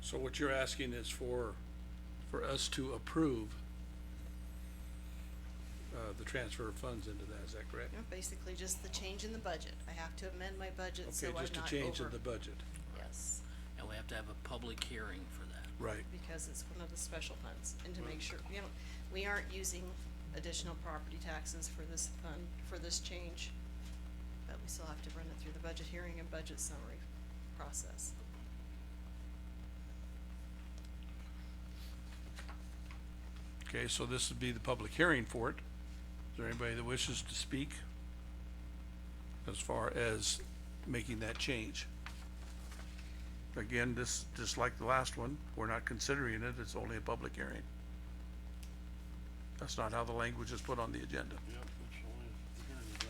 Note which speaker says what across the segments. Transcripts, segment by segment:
Speaker 1: So what you're asking is for, for us to approve uh, the transfer of funds into that, is that correct?
Speaker 2: you know, basically just the change in the budget. I have to amend my budget so
Speaker 1: Okay,
Speaker 2: I'm not over.
Speaker 1: just a change in the budget,
Speaker 2: Yes,
Speaker 3: And we have to have a public hearing for that.
Speaker 1: right,
Speaker 2: because it's one of the special funds and to make sure, you know, we aren't using additional property taxes for this fund, for this change. But we still have to run it through the budget hearing and budget summary process.
Speaker 1: okay, so this would be the public hearing for it. Is there anybody that wishes to speak? As far as making that change? Again, this, just like the last one, we're not considering it, it's only a public hearing. That's not how the language is put on the agenda.
Speaker 4: Yep, it's only, here you go.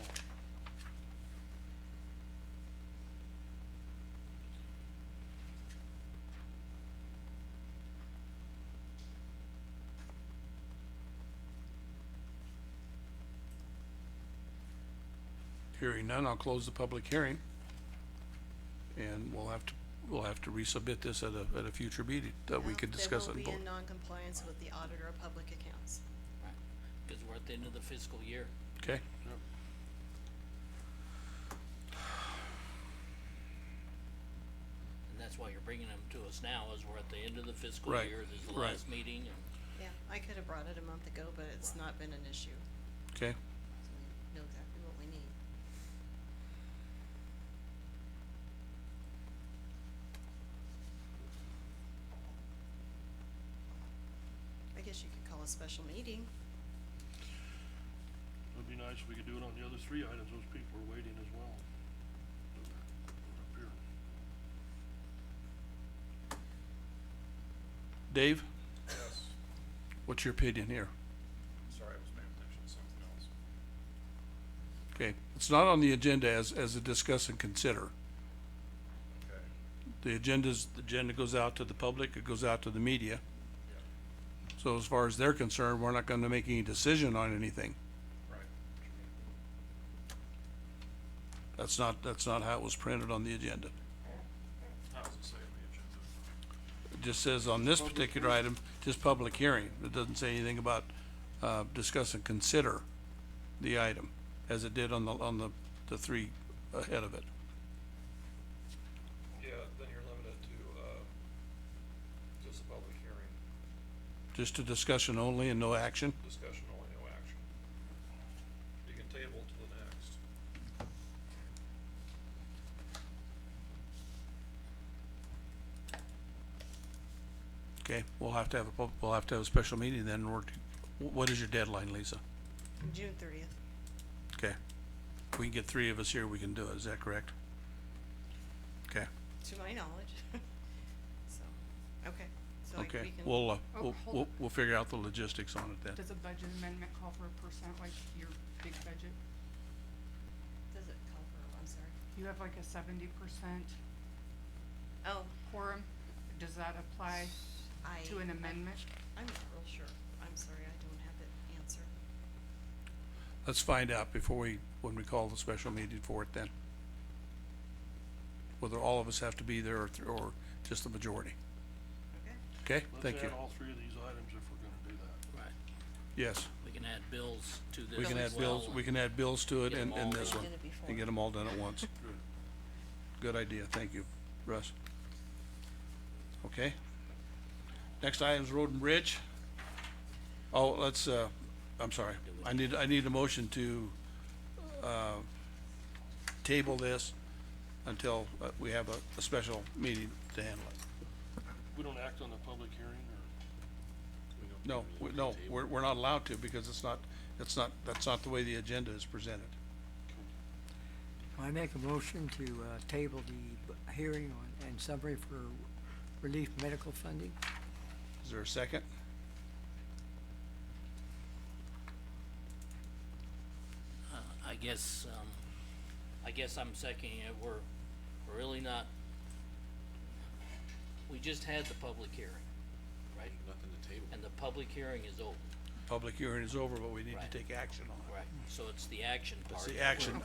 Speaker 1: Hearing none, I'll close the public hearing. And we'll have to, we'll have to resubmit this at a, at a future meeting that we
Speaker 2: Now,
Speaker 1: can discuss
Speaker 2: They
Speaker 1: it.
Speaker 2: will be in non-compliance with the auditor of public accounts.
Speaker 3: Right. Cause we're at the end of the fiscal year.
Speaker 1: Okay?
Speaker 4: Yep.
Speaker 3: And that's why you're bringing them to us now, is we're at the end of the fiscal
Speaker 1: Right,
Speaker 3: year, this is the
Speaker 1: right.
Speaker 3: last meeting, and
Speaker 2: Yeah, I could have brought it a month ago, but it's not been an issue.
Speaker 1: Okay,
Speaker 2: So we know exactly what we need. I guess you could call a special meeting.
Speaker 4: It'd be nice if we could do it on the other three items, those people are waiting as well. Up here.
Speaker 1: Dave,
Speaker 5: Yes,
Speaker 1: what's your opinion here?
Speaker 5: sorry, I was paying attention to something else.
Speaker 1: Okay, it's not on the agenda as, as a discuss and consider.
Speaker 5: Okay,
Speaker 1: The agenda's, the agenda goes out to the public, it goes out to the media.
Speaker 5: yeah,
Speaker 1: So as far as they're concerned, we're not gonna make any decision on anything.
Speaker 5: right.
Speaker 1: That's not, that's not how it was printed on the agenda.
Speaker 5: How does it say on the agenda?
Speaker 1: It just says on this particular item, just public hearing. It doesn't say anything about, uh, discuss and consider the item, as it did on the, on the, the three ahead of it.
Speaker 5: Yeah, then you're limited to, uh, just a public hearing,
Speaker 1: Just a discussion only and no action.
Speaker 5: discussion only, no action. You can table to the next.
Speaker 1: Okay, we'll have to have a, pub- we'll have to have a special meeting then, or, what is your deadline, Lisa?
Speaker 2: June thirtieth.
Speaker 1: Okay. If we can get three of us here, we can do it, is that correct? Okay,
Speaker 2: To my knowledge. So, okay, so I- we can.
Speaker 1: okay, we'll, uh,
Speaker 6: Oh,
Speaker 1: we'll,
Speaker 6: hold
Speaker 1: we'll,
Speaker 6: on.
Speaker 1: we'll figure out the logistics on it then.
Speaker 6: Does a budget amendment call for a percent, like your big budget?
Speaker 2: Does it call for, I'm sorry.
Speaker 6: You have like a seventy percent
Speaker 2: Oh,
Speaker 6: quorum, does that apply
Speaker 2: I.
Speaker 6: to an amendment?
Speaker 2: I'm not real sure. I'm sorry, I don't have the answer.
Speaker 1: Let's find out before we, when we call the special meeting for it then. Whether all of us have to be there or, th- or just the majority,
Speaker 2: Okay.
Speaker 1: okay? Thank
Speaker 4: Let's
Speaker 1: you.
Speaker 4: add all three of these items if we're gonna do that.
Speaker 3: Right.
Speaker 1: Yes,
Speaker 3: we can add bills to this
Speaker 1: we
Speaker 3: as
Speaker 1: can add bills,
Speaker 3: well,
Speaker 1: we can add bills to it
Speaker 3: Get
Speaker 1: and,
Speaker 3: 'em
Speaker 1: and
Speaker 3: all
Speaker 1: this
Speaker 2: done.
Speaker 1: one.
Speaker 2: Get it before.
Speaker 1: And get them all done at once.
Speaker 4: Good.
Speaker 1: Good idea, thank you, Russ. Okay. Next item is Road and Bridge. Oh, let's, uh, I'm sorry, I need, I need a motion to, uh, table this until uh, we have a, a special meeting to handle it.
Speaker 4: We don't act on the public hearing or?
Speaker 1: No, we- no, we're, we're not allowed to because it's not, it's not, that's not the way the agenda is presented.
Speaker 7: I make a motion to uh, table the b- hearing on- and summary for relief medical funding.
Speaker 1: Is there a second?
Speaker 3: Uh, I guess, um, I guess I'm seconding it, we're, we're really not, we just had the public hearing, right?
Speaker 8: nothing to table.
Speaker 3: And the public hearing is over,
Speaker 1: Public hearing is over, but we need
Speaker 3: Right.
Speaker 1: to take action on it.
Speaker 3: right, so it's the action part.
Speaker 1: It's the
Speaker 3: that we're-
Speaker 1: action